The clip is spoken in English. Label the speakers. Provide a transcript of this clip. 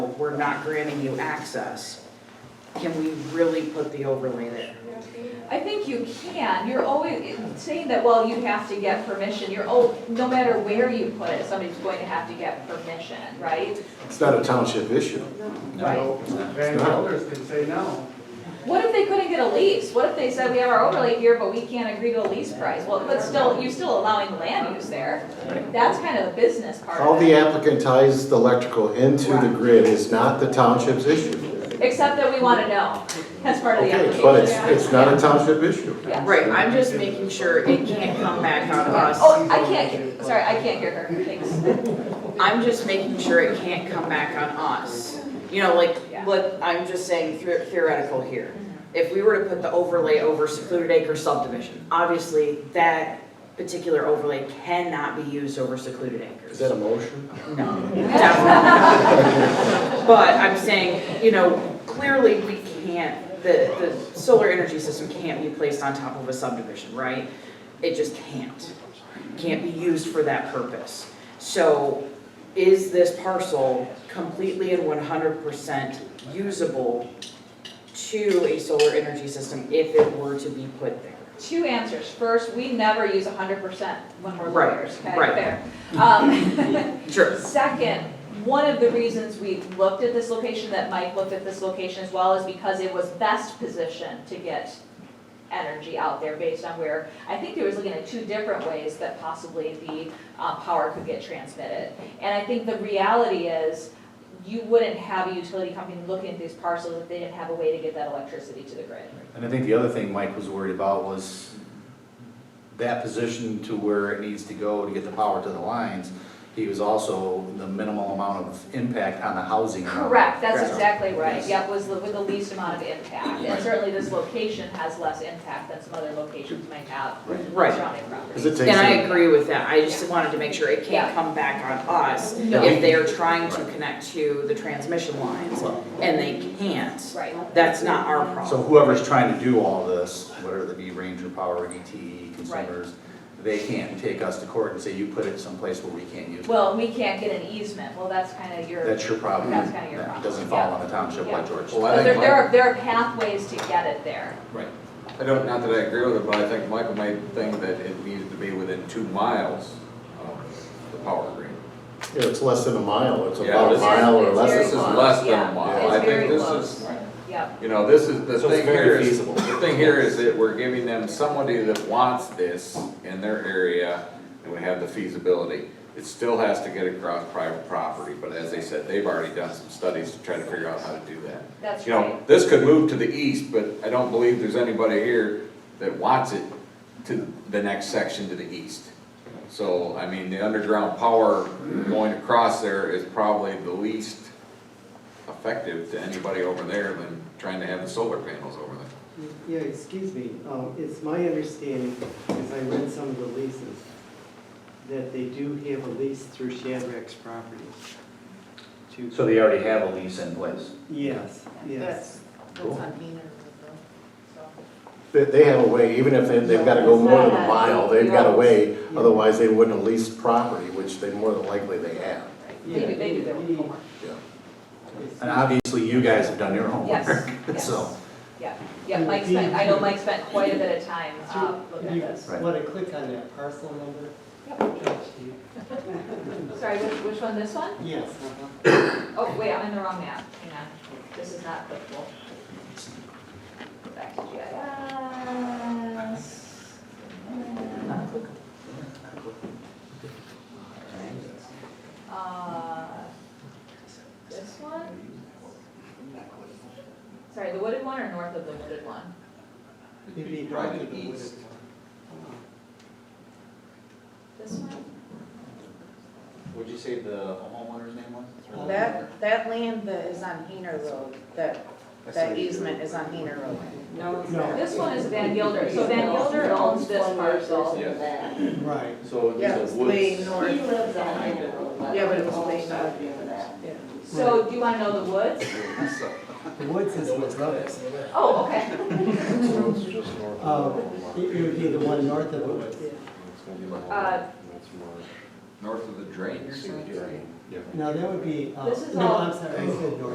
Speaker 1: we're not granting you access, can we really put the overlay there?
Speaker 2: I think you can, you're always saying that, well, you have to get permission, you're, oh, no matter where you put it, somebody's going to have to get permission, right?
Speaker 3: It's not a township issue.
Speaker 2: Right.
Speaker 4: Van Gelders can say no.
Speaker 2: What if they couldn't get a lease? What if they said, we have our overlay here, but we can't agree to a lease price? Well, but still, you're still allowing land use there. That's kind of the business part
Speaker 3: How
Speaker 2: of
Speaker 3: the
Speaker 2: it.
Speaker 3: applicant ties the electrical into the grid is not the township's issue.
Speaker 2: Except that we want to know, that's part of the
Speaker 3: Okay,
Speaker 2: application.
Speaker 3: but it's, it's not a township issue.
Speaker 2: Yeah.
Speaker 1: Right, I'm just making sure it can't come back on
Speaker 2: Yeah.
Speaker 1: us.
Speaker 2: Oh, I can't, sorry, I can't hear her, thanks.
Speaker 1: I'm just making sure it can't come back on us. You know, like,
Speaker 2: Yeah.
Speaker 1: let, I'm just saying the- theoretical here. If we were to put the overlay over secluded acre subdivision, obviously that particular overlay cannot be used over secluded acres.
Speaker 3: Is that a motion?
Speaker 1: No, definitely. But I'm saying, you know, clearly we can't, the, the solar energy system can't be placed on top of a subdivision, right? It just can't, can't be used for that purpose. So is this parcel completely and one hundred percent usable to a solar energy system if it were to be put there?
Speaker 2: Two answers. First, we never use hundred percent when we're
Speaker 1: Right,
Speaker 2: lawyers, okay,
Speaker 1: right.
Speaker 2: fair. Um,
Speaker 1: Sure.
Speaker 2: Second, one of the reasons we looked at this location, that Mike looked at this location as well, is because it was best positioned to get energy out there based on where, I think there was looking at two different ways that possibly the uh, power could get transmitted. And I think the reality is, you wouldn't have a utility company looking at these parcels if they didn't have a way to get that electricity to the grid.
Speaker 5: And I think the other thing Mike was worried about was that position to where it needs to go to get the power to the lines. He was also the minimal amount of impact on the housing.
Speaker 2: Correct, that's
Speaker 5: Correct.
Speaker 2: exactly right,
Speaker 5: Yes.
Speaker 2: yep, was the- with the least amount of impact, and certainly this location has less impact than some other locations might have
Speaker 1: Right.
Speaker 2: surrounding
Speaker 3: Because it
Speaker 2: properties.
Speaker 3: takes,
Speaker 1: And I
Speaker 3: a-
Speaker 1: agree with that, I just wanted to make sure it
Speaker 2: Yeah.
Speaker 1: can't come back on us
Speaker 2: No.
Speaker 1: if they are trying to connect to the transmission lines and they can't.
Speaker 2: Right,
Speaker 1: That's not our
Speaker 5: So
Speaker 1: problem.
Speaker 5: whoever's trying to do all this, whether it be Ranger Power, DTE, consumers, they can't take us to court and say, you put it someplace where we can't use it.
Speaker 2: well, we can't get an easement, well, that's kind of your,
Speaker 5: That's your problem.
Speaker 2: That's kinda your
Speaker 5: That
Speaker 2: problem,
Speaker 5: Doesn't fall
Speaker 2: yeah.
Speaker 5: on the township
Speaker 2: Yeah.
Speaker 5: like George.
Speaker 6: Well,
Speaker 2: but
Speaker 6: I
Speaker 2: there,
Speaker 6: think,
Speaker 2: there
Speaker 6: Mike-
Speaker 2: are, there are pathways to get it there.
Speaker 5: Right.
Speaker 6: I don't, not that I agree with it, but I think Michael made the thing that it needed to be within two miles of the power grid.
Speaker 3: yeah, it's less than a mile, it's
Speaker 6: Yeah,
Speaker 3: about a
Speaker 6: this is-
Speaker 3: mile or
Speaker 2: it's
Speaker 3: less
Speaker 2: very
Speaker 6: This
Speaker 3: than
Speaker 6: is
Speaker 3: a mile.
Speaker 6: less than a
Speaker 2: Yeah,
Speaker 6: mile.
Speaker 2: it's
Speaker 6: I think
Speaker 2: very
Speaker 6: this
Speaker 2: close.
Speaker 6: is-
Speaker 2: Yep,
Speaker 6: You know, this is, the
Speaker 5: So it's
Speaker 6: thing
Speaker 5: very
Speaker 6: here is,
Speaker 5: feasible.
Speaker 6: the thing here is that we're giving them somebody that wants this in their area, and we have the feasibility. It still has to get across private property, but as they said, they've already done some studies to try to figure out how to do that.
Speaker 2: that's
Speaker 6: You know,
Speaker 2: right,
Speaker 6: this could move to the east, but I don't believe there's anybody here that wants it to the next section to the east. So, I mean, the underground power going across there is probably the least effective to anybody over there than trying to have the solar panels over there.
Speaker 7: Yeah, excuse me, um, it's my understanding, because I read some of the leases, that they do have a lease through Shadrack's Properties. to-
Speaker 5: So they already have a lease in place.
Speaker 7: Yes, yes.
Speaker 3: They, they have a way, even if they, they've gotta go more than a mile, they've got a way, otherwise they wouldn't have leased property, which they more than likely they have.
Speaker 2: they do, they do their
Speaker 7: Yeah,
Speaker 2: homework,
Speaker 7: it's-
Speaker 5: And obviously, you guys have done your homework,
Speaker 2: yes,
Speaker 5: so.
Speaker 2: yes. Yeah, yeah, Mike spent, I know Mike spent quite a bit of time, uh, looking at
Speaker 7: You
Speaker 2: this.
Speaker 7: Want to click on that parcel number?
Speaker 2: Sorry, which, which one, this one?
Speaker 7: Yes, uh-huh.
Speaker 2: Oh, wait, I'm in the wrong map, hang on, this is not clickable. Back to GIS. Uh, This one? Sorry, the wooded one or north of the wooded one?
Speaker 7: It'd be
Speaker 6: Right
Speaker 7: north of the
Speaker 6: east.
Speaker 7: wooded
Speaker 2: This one?
Speaker 5: Would you say the homeowner's name was?
Speaker 8: That, that land that is on Heener Road, that, that easement is on Heener Road. No, it's
Speaker 7: No.
Speaker 2: This one is Van Gilder, so Van Gilder owns this parcel.
Speaker 6: Yes.
Speaker 7: one. Right.
Speaker 5: So
Speaker 8: Yeah, it's way north. Yeah, but it was way north. Yeah.
Speaker 2: So do you wanna know the woods?
Speaker 7: The woods is what's up.
Speaker 2: Oh, okay.
Speaker 7: Um, It it would be the one north of the woods.
Speaker 2: Uh,
Speaker 6: North of the drain, you're saying?
Speaker 7: No, that would be, uh,
Speaker 2: This is
Speaker 7: no,
Speaker 2: all-
Speaker 7: I'm sorry, I said north.